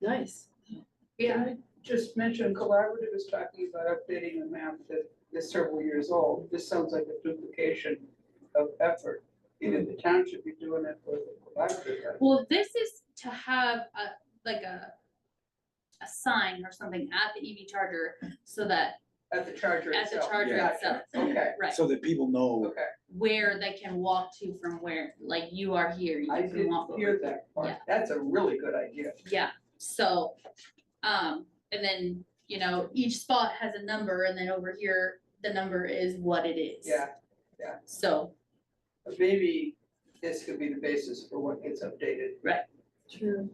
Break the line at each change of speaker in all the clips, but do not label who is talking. Nice.
Yeah,
Can I Just mention collaborative is talking about updating a map that is several years old. This sounds like a duplication of effort. Either the town should be doing it or the collaborative. has
well, this is to have a, like a, a sign or something at the EV charger so that
it. uh, At the charger
at the
itself.
charger
Gotcha.
itself,
Okay,
right,
so that people know,
okay.
where they can walk to from where, like you are here, you
I
can
did
walk over.
hear that part.
Yeah.
That's a really good idea.
Yeah, so, um, and then, you know, each spot has a number and then over here, the number is what it is.
Yeah.
So,
But Maybe this could be the basis for what gets updated,
True.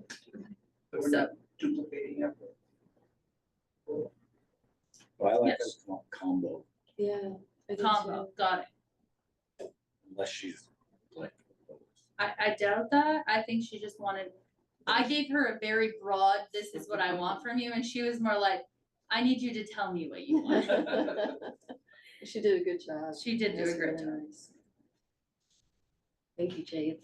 so we're not duplicating effort.
I like
Yes.
that combo,
Yeah. I do too.
combo, got it.
unless she's like.
I, I doubt that. I think she just wanted, I gave her a very broad, this is what I want from you, and she was more like, I need you to tell me what you want.
She did a good job.
She did do
That's
a great
really
job.
nice. Thank you, Jade.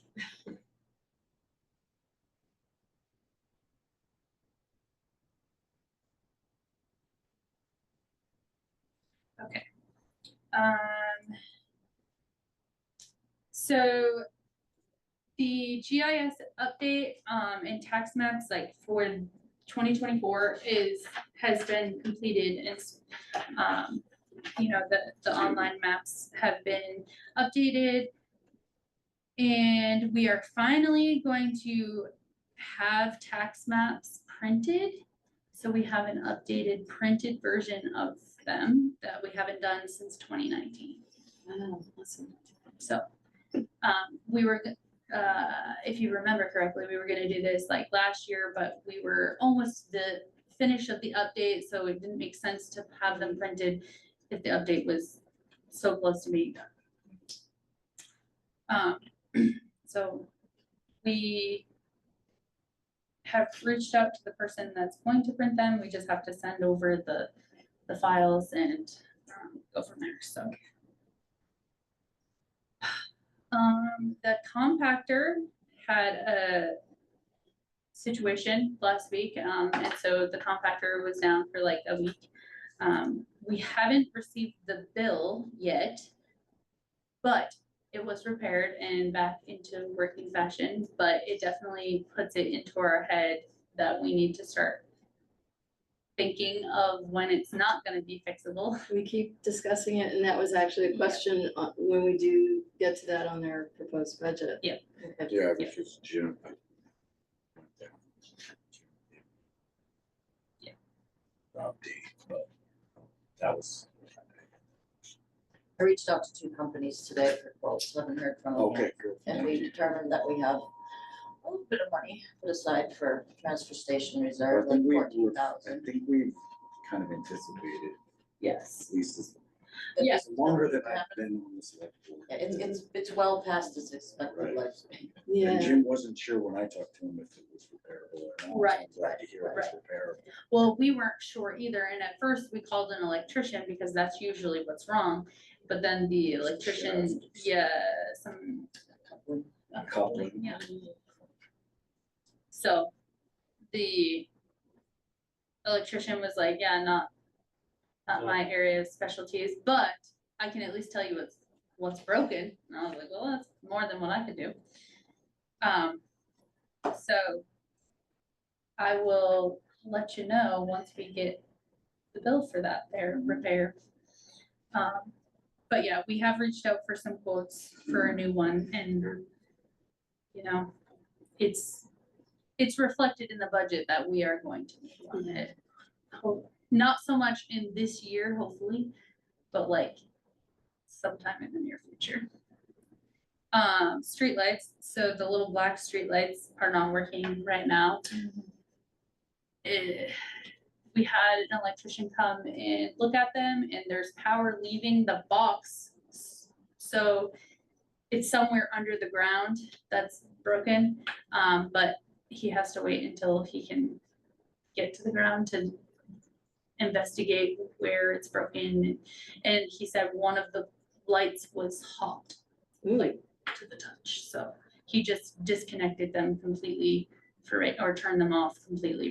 Um. So. The GIS update, um, and tax maps like for twenty twenty-four is, has been completed and. s- Um, you know, the, the online maps have been updated. And we are finally going to have tax maps printed. So we have an updated printed version of them that we haven't done since twenty nineteen.
Wow, awesome.
So, um, we were, g- uh, if you remember correctly, we were gonna do this like last year, but we were almost the finish of the update, so it didn't make sense to have them printed if the update was so close to being done. Um, so we have reached out to the person that's going to print them, we just have to send over the, the files and, um, go from there, so. Um, the compactor had a situation last week, um, and so the compactor was down for like a week. Um, we haven't received the bill yet, but it was repaired and back into working fashion, but it definitely puts it into our head that we need to start thinking of when it's not gonna be fixable.
We keep discussing it, and that was actually a question uh, when we do get to that on their proposed budget.
Yeah.
Okay.
Yeah,
which
is June.
Yeah.
That was,
I reached out to two companies today for quotes, haven't heard from them yet.
okay, good.
And we determined that we have a little bit of money put aside for transfer station
I
reserve, like
think we,
fourteen
we've- I
thousand.
think we've kind of anticipated,
Yes.
at least it's
Yes.
longer than I've been on this select board.
Yeah, it's, it's, it's well past its expected
Right.
lifespan.
And
Yeah,
Jim wasn't sure when I talked to him if it was repairable or not. so
Right,
I'm Glad to hear it was repairable.
Well, we weren't sure either, and at first we called an electrician because that's usually what's wrong, but then the electrician, yeah, some. a
Coupling.
Yeah. So, the electrician was like, yeah, not, not my area of specialties, but I can at least tell you what's, what's broken, and I was like, well, that's more than what I could do. Um, so I will let you know once we get the bill for that there repair. Um, but yeah, we have reached out for some quotes for a new one and, you know, it's, it's reflected in the budget that we are going to need on it. Ho- Not so much in this year, hopefully, but like sometime in the near future. Um, streetlights, so the little black streetlights are not working right now eh, we had an electrician come and look at them and there's power leaving the box. So it's somewhere under the ground that's broken, um, but he has to wait until he can get to the ground to investigate where it's broken. And he said one of the lights was hot
Ooh,
to the touch, so he just disconnected them completely for it or turned them off completely